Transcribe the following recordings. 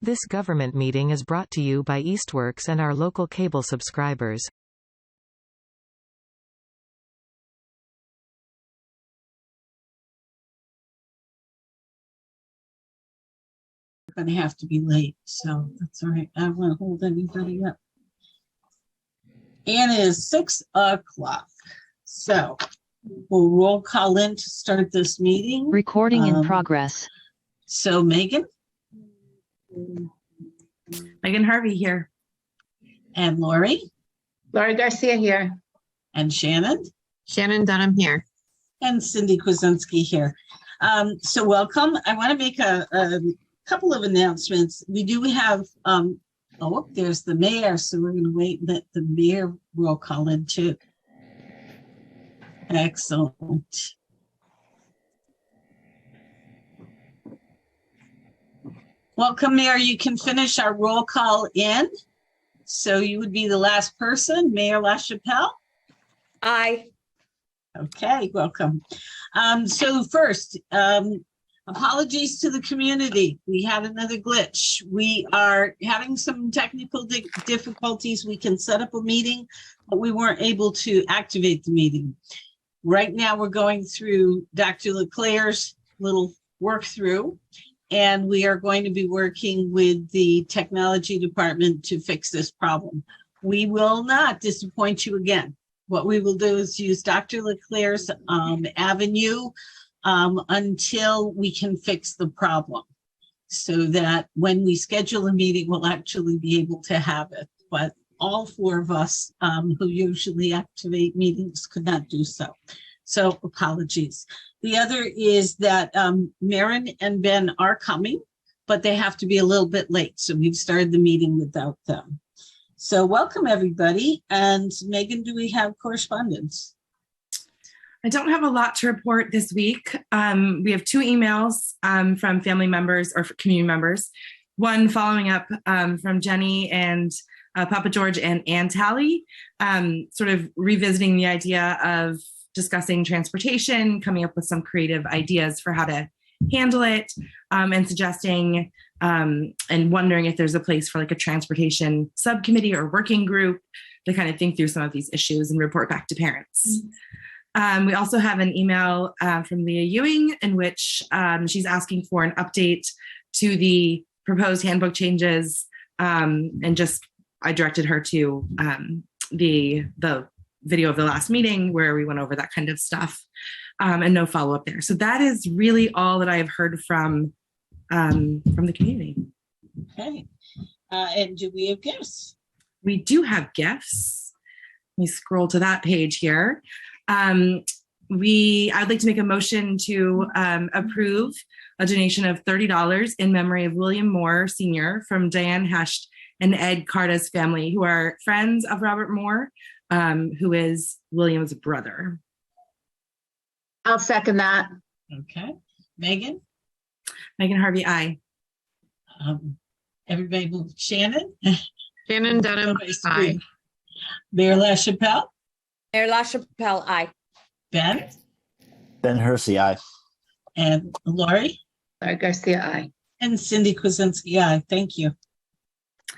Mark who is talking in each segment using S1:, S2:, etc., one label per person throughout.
S1: This government meeting is brought to you by Eastworks and our local cable subscribers.
S2: gonna have to be late, so that's all right. I don't wanna hold anybody up. And it is six o'clock, so we'll roll call in to start this meeting.
S3: Recording in
S2: Um,
S3: progress.
S2: So Megan
S4: Megan Harvey here.
S2: and Lori
S5: Laurie Garcia here.
S2: and Shannon
S5: Shannon Dunham here.
S2: and Cindy Kuzensky here. Um, so welcome. I wanna make a, a couple of announcements. We do have, um, oh, there's the mayor, so we're gonna wait, and let the mayor roll call in too. Excellent. Welcome, Mayor. You can finish our roll call in. So you would be the last person, Mayor LaChapelle? Aye. Okay, welcome. Um, so first, um, apologies to the community. We had another glitch. We are having some technical di- difficulties. We can set up a meeting, but we weren't able to activate the meeting. Right now, we're going through Dr. Leclerc's little work through. And we are going to be working with the technology department to fix this problem. We will not disappoint you again. What we will do is use Dr. Leclerc's um avenue um until we can fix the problem. So that when we schedule a meeting, we'll actually be able to have it. But all four of us um who usually activate meetings could not do so. So apologies. The other is that um Maren and Ben are coming, but they have to be a little bit late, so we've started the meeting without them. So welcome, everybody. And Megan, do we have correspondence?
S4: I don't have a lot to report this week. Um, we have two emails um, from family members or community members. One following up um, from Jenny and uh, Papa George and Ann Talley, um, sort of revisiting the idea of discussing transportation, coming up with some creative ideas for how to handle it, um, and suggesting um, and wondering if there's a place for like a transportation subcommittee or working group to kind of think through some of these issues and report back to parents. Um, we also have an email uh, from Leah Ewing in which um, she's asking for an update to the proposed handbook changes, um, and just I directed her to um, the the video of the last meeting where we went over that kind of stuff, um, and no follow up there. So that is really all that I have heard from um, from the community.
S2: Okay. Uh, and do we have gifts?
S4: we do have gifts. Let me scroll to that page here. Um, we, I'd like to make a motion to um, approve a donation of thirty dollars in memory of William Moore Sr. from Diane Hesht and Ed Carta's family, who are friends of Robert Moore, um, who is William's brother.
S5: I'll second that.
S2: Okay. Megan,
S4: Megan Harvey, I.
S2: um, everybody, will- Shannon?
S5: Shannon Dunham,
S2: Nobody's
S5: aye.
S2: screaming. Mayor LaChapelle,
S6: Mayor LaChapelle, aye.
S2: Ben,
S7: Ben Hersey, aye.
S2: and Lori,
S5: Laurie Garcia, aye.
S2: and Cindy Kuzensky. I thank you.
S4: I'd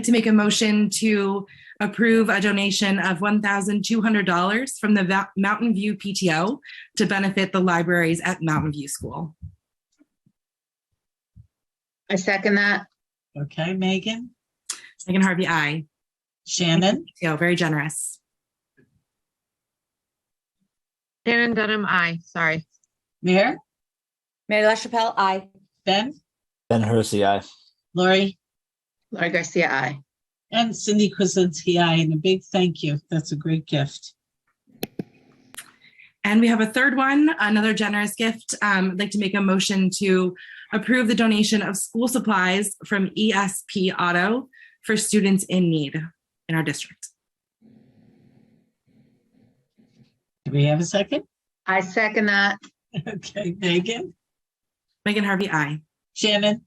S4: like to make a motion to approve a donation of $1,200 from the Va- Mountain View PTO to benefit the libraries at Mountain View School.
S5: I second that.
S2: Okay, Megan,
S4: Megan Harvey, I.
S2: Shannon,
S4: PTO, very generous.
S5: Shannon Dunham, aye. Sorry.
S2: Mayor,
S6: Mayor LaChapelle, aye.
S2: Ben,
S7: Ben Hersey, aye.
S2: Lori,
S5: Laurie Garcia, aye.
S2: And Cindy Kuzensky, I, and a big thank you. That's a great gift.
S4: And we have a third one, another generous gift. Um, I'd like to make a motion to approve the donation of school supplies from ESP Auto for students in need in our district.
S2: Do we have a second?
S5: I second that.
S2: Okay, Megan,
S4: Megan Harvey, I.
S2: Shannon,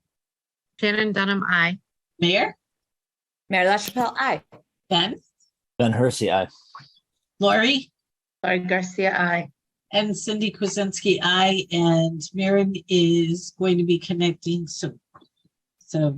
S5: Shannon Dunham, aye.
S2: Mayor,
S6: Mayor LaChapelle, aye.
S2: Ben,
S7: Ben Hersey, aye.
S2: Lori,
S5: Laurie Garcia, aye.
S2: and Cindy Kuzensky, I, and Maren is going to be connecting soon. So